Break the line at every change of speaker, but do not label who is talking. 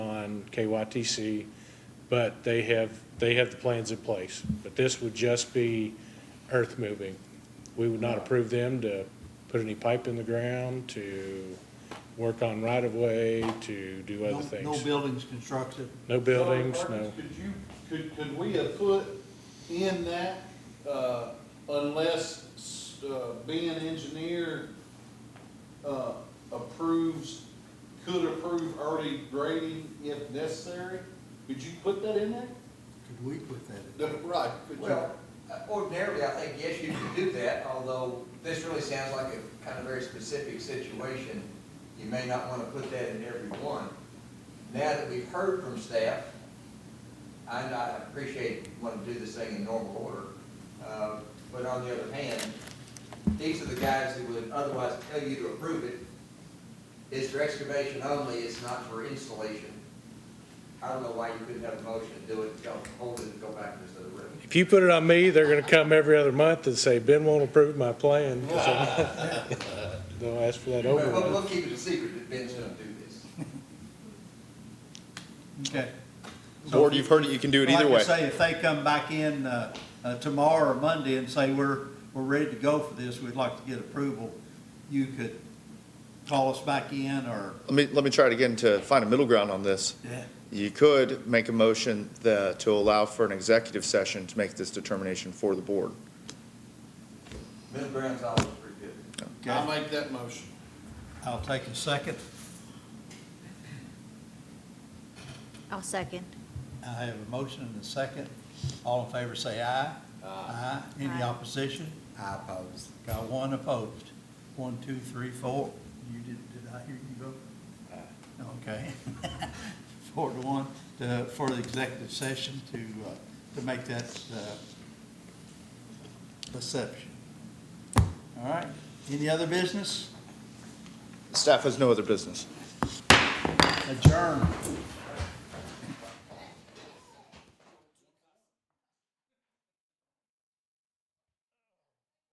and KYTC, but they have, they have the plans in place. But this would just be earth moving. We would not approve them to put any pipe in the ground, to work on right-of-way, to do
No
other things.
no buildings constructed.
No buildings, no.
Marcus, Could you, could, could we have put in that, uh, unless, uh, being engineer, uh, approves, could approve early grading if necessary? Could you put that in there?
Could we put that in?
No, Right, could you?
Well, uh, ordinarily, I think, yes, you could do that, although this really sounds like a kind of very specific situation. You may not want to put that in every one. Now that we've heard from staff, and I appreciate wanting to do this thing in normal order, uh, but on the other hand, these are the guys who would otherwise tell you to approve it. It's for excavation only, it's not for installation. I don't know why you couldn't have a motion to do it, don't hold it, and go back into the room.
If you put it on me, they're gonna come every other month and say, Ben won't approve my plan, 'cause I'm- they'll ask for that
We'll, we'll-
override.
we'll keep it a secret that Ben's gonna do this.
Okay.
Board, you've heard it, you can do it either way.
Like I say, if they come back in uh, uh, tomorrow or Monday and say, we're, we're ready to go for this, we'd like to get approval, you could call us back in or,
Let me, let me try it again to find a middle ground on this.
yeah,
You could make a motion that, to allow for an executive session to make this determination for the board.
Middle ground's always pretty good.
I'll
okay.
make that motion.
I'll take a second.
I'll second.
I have a motion and a second. All in favor say aye. Aye. Any
Aye.
opposition? I oppose. Got one opposed. One, two, three, four. You did, did I hear you vote? Okay. Four to one, to- for the executive session to, uh, to make that uh, exception. All right. Any other business?
Staff has no other business.
Adjourn.